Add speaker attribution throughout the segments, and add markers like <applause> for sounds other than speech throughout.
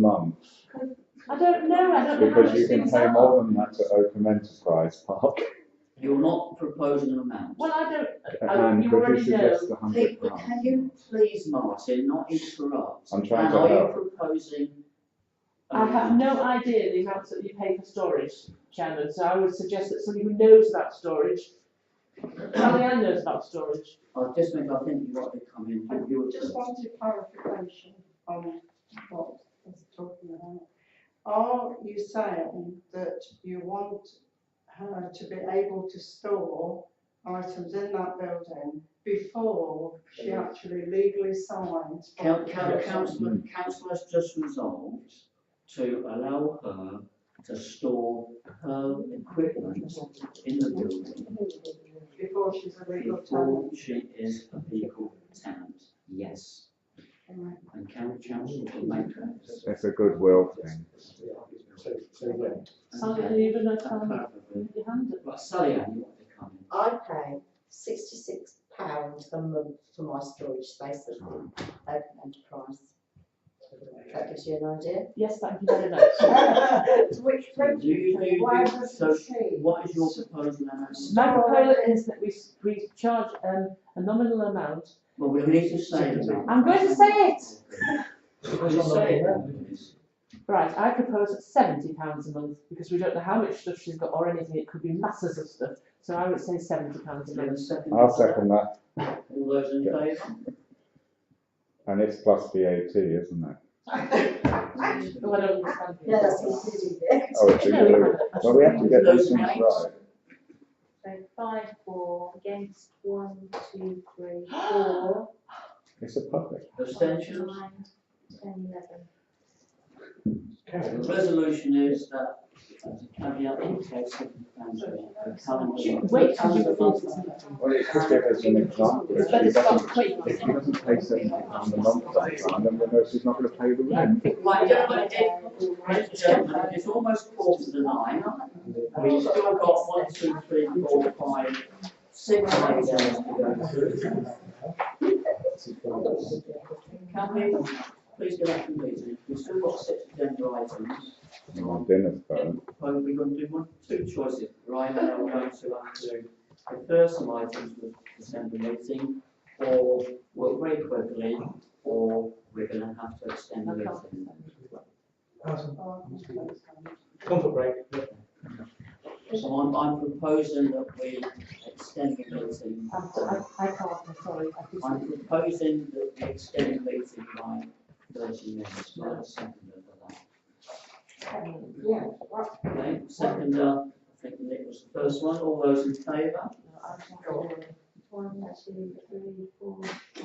Speaker 1: month,
Speaker 2: I don't know, I don't know how
Speaker 1: because
Speaker 2: much
Speaker 1: you can
Speaker 2: things
Speaker 1: pay
Speaker 2: are.
Speaker 1: more than that at Open Enterprise
Speaker 2: <laughs>
Speaker 1: Park.
Speaker 3: You're not proposing an amount.
Speaker 2: Well, I don't,
Speaker 1: And
Speaker 2: Oh, you
Speaker 1: could you
Speaker 2: already
Speaker 1: suggest a hundred
Speaker 3: Hey, but Can
Speaker 1: pounds?
Speaker 3: you please, Martin, not interrupt?
Speaker 1: I'm trying
Speaker 3: And
Speaker 1: to
Speaker 3: are you
Speaker 1: help.
Speaker 3: proposing? an
Speaker 2: I have
Speaker 3: amount?
Speaker 2: no idea the amounts that you pay for storage, Chairman, so I would suggest that somebody who knows about storage, Marianne knows about storage.
Speaker 3: I just think, I think you ought to come in,
Speaker 4: I
Speaker 3: you- you were
Speaker 4: just
Speaker 3: just,
Speaker 4: wanted clarification on what is talking about. Are you saying that you want her to be able to store items in that building before she actually legally signs? for
Speaker 3: Coun-
Speaker 4: the
Speaker 3: coun-
Speaker 4: purchase?
Speaker 3: councillor,
Speaker 1: Hmm.
Speaker 3: council has just resolved to allow her to store her equipment in the building
Speaker 4: Before she's a legal tenant.
Speaker 3: before she is a legal tenant, yes.
Speaker 4: Right.
Speaker 3: And can council can make that?
Speaker 1: It's a goodwill thing.
Speaker 2: Sally, you even, um,
Speaker 3: Probably.
Speaker 2: with your hand up.
Speaker 3: But Sally Ann, you ought to come in.
Speaker 5: I pay sixty-six pounds a month for my storage space at the open enterprise. That gives you an idea.
Speaker 2: Yes, thank you very much.
Speaker 4: To which
Speaker 3: Do you, do you,
Speaker 4: Why
Speaker 3: do-
Speaker 4: was
Speaker 3: so
Speaker 4: it changed?
Speaker 3: what is your proposal now?
Speaker 2: My proposal is that we, s- we charge, um, a nominal amount.
Speaker 3: Well, we need to say that.
Speaker 2: I'm going to say it.
Speaker 3: You say it.
Speaker 2: Right, I propose seventy pounds a month, because we don't know how much stuff she's got or anything, it could be masses of stuff, so I would say seventy pounds a
Speaker 3: Do you have a
Speaker 2: month.
Speaker 3: second?
Speaker 1: I'll second that,
Speaker 3: All those in favour?
Speaker 1: and it's plus VAT, isn't it?
Speaker 2: Oh, I don't understand.
Speaker 5: No, that's including it.
Speaker 1: Oh, it's
Speaker 2: No,
Speaker 1: included. Well, we have to get these things
Speaker 3: Right.
Speaker 1: right.
Speaker 6: So five, four, against, one, two, three,
Speaker 3: <gasps>
Speaker 6: four,
Speaker 1: It's a public.
Speaker 3: Abstentions?
Speaker 6: nine, ten, eleven.
Speaker 3: The resolution is that, as a caveat, in case of cancer, the calendar.
Speaker 2: She- Wait till you've voted.
Speaker 1: Well, it just give us an example. If
Speaker 2: It's
Speaker 1: she
Speaker 2: better start
Speaker 1: doesn't,
Speaker 2: quick.
Speaker 1: if she doesn't pay seventy pounds a month, sometime, then we know she's not going to pay the rent.
Speaker 3: Right, yeah, but it- right, gentlemen, it's almost quarter to nine. We've still got one, two, three, four, five, six items to go through. Can we, please go back to the meeting, we've still got six agenda items.
Speaker 1: My dinner's burnt.
Speaker 3: Well, we're going to do one, two choices, right now, we're going to have to, the first some items for December meeting, or work very quickly, or we're gonna have to extend the meeting.
Speaker 7: Comfort break.
Speaker 3: So I'm, I'm proposing that we extend the meeting,
Speaker 2: I, I- I can't, I'm sorry, I just.
Speaker 3: I'm proposing that we extend the meeting by thirty minutes, not a second of
Speaker 5: Yeah,
Speaker 3: that. Okay, second, uh, I think Nick was the first one, all those in favour?
Speaker 6: One, two, three, four, five.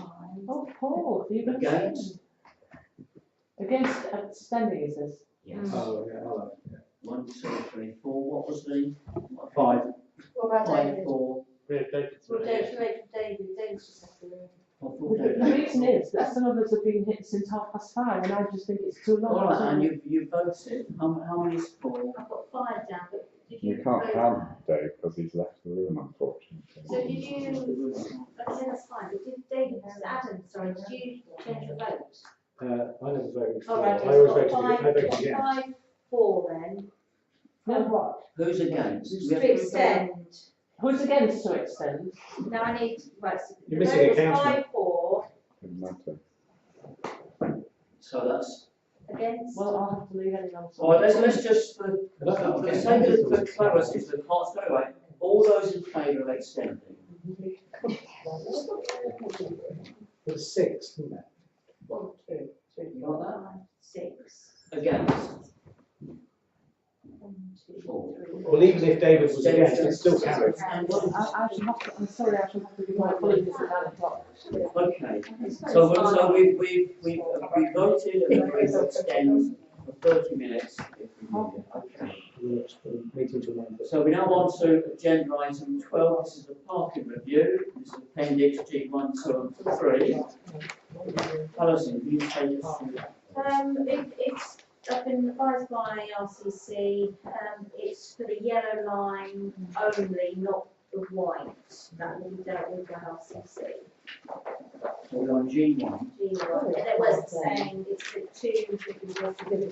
Speaker 2: Oh, Paul, have you been
Speaker 3: Against?
Speaker 2: Against abstaining, is this?
Speaker 3: Yes.
Speaker 7: Oh, yeah, hello.
Speaker 3: One, two, three, four, what was the? what-
Speaker 6: What about
Speaker 3: Five,
Speaker 6: David?
Speaker 3: four,
Speaker 7: We have David.
Speaker 6: Well, don't you make David, David's just have to leave.
Speaker 3: or four,
Speaker 2: The
Speaker 3: don't
Speaker 2: the
Speaker 3: you?
Speaker 2: reason is that some of us have been hit since half past five, and I just think it's too long.
Speaker 3: All right, and you, you voted, how, how many is for?
Speaker 6: I've got five down, but did you?
Speaker 1: You can't
Speaker 6: vote?
Speaker 1: have Dave because he's left the room,
Speaker 6: So
Speaker 1: unfortunately.
Speaker 6: did you, okay, that's fine, but did David, Adam, sorry, did you change your vote?
Speaker 7: Uh, I never voted.
Speaker 6: All Oh, right,
Speaker 7: I always
Speaker 6: it's
Speaker 7: voted,
Speaker 6: got
Speaker 7: I voted
Speaker 6: five,
Speaker 7: yes.
Speaker 6: five, four then,
Speaker 2: No,
Speaker 3: Who's against? We have-
Speaker 6: to extend.
Speaker 2: Who's against to extend?
Speaker 6: Now I need, right, so the
Speaker 7: You're missing
Speaker 6: vote
Speaker 7: a
Speaker 6: was
Speaker 7: councillor.
Speaker 6: five, four,
Speaker 1: Doesn't matter.
Speaker 3: So that's,
Speaker 6: against.
Speaker 2: Well, I'll have to leave anyone.
Speaker 3: all right, let's, let's just, for, for the sake of the clarity, for the clerk's vote, right, all those in favour of extending?
Speaker 7: For six, isn't it?
Speaker 5: one, two, three,
Speaker 3: You
Speaker 5: four,
Speaker 3: got
Speaker 5: five, six.
Speaker 3: that? Against?
Speaker 5: One, two,
Speaker 3: Four.
Speaker 5: three,
Speaker 7: Well, even if David was against, it still counted.
Speaker 3: And
Speaker 2: I,
Speaker 3: one-
Speaker 2: I should have to, I'm sorry, I should have to give my apologies at nine o'clock.
Speaker 3: Okay,
Speaker 6: It's very
Speaker 3: so, we- so
Speaker 6: fine.
Speaker 3: we, we, we, we voted and we're going to extend for thirty minutes. if we need it. Okay.
Speaker 7: Meeting to one.
Speaker 3: So we now on to agenda item twelve, this is the parking review, this is appendix G one, two and three. Alison, can you take us through that?
Speaker 6: Um, it, it's, I've been advised by RCC, um, it's for the yellow line only, not the white, that will be dealt with by RCC.
Speaker 3: So we're on G one.
Speaker 6: G one, and it was the same, it's the two, that you were-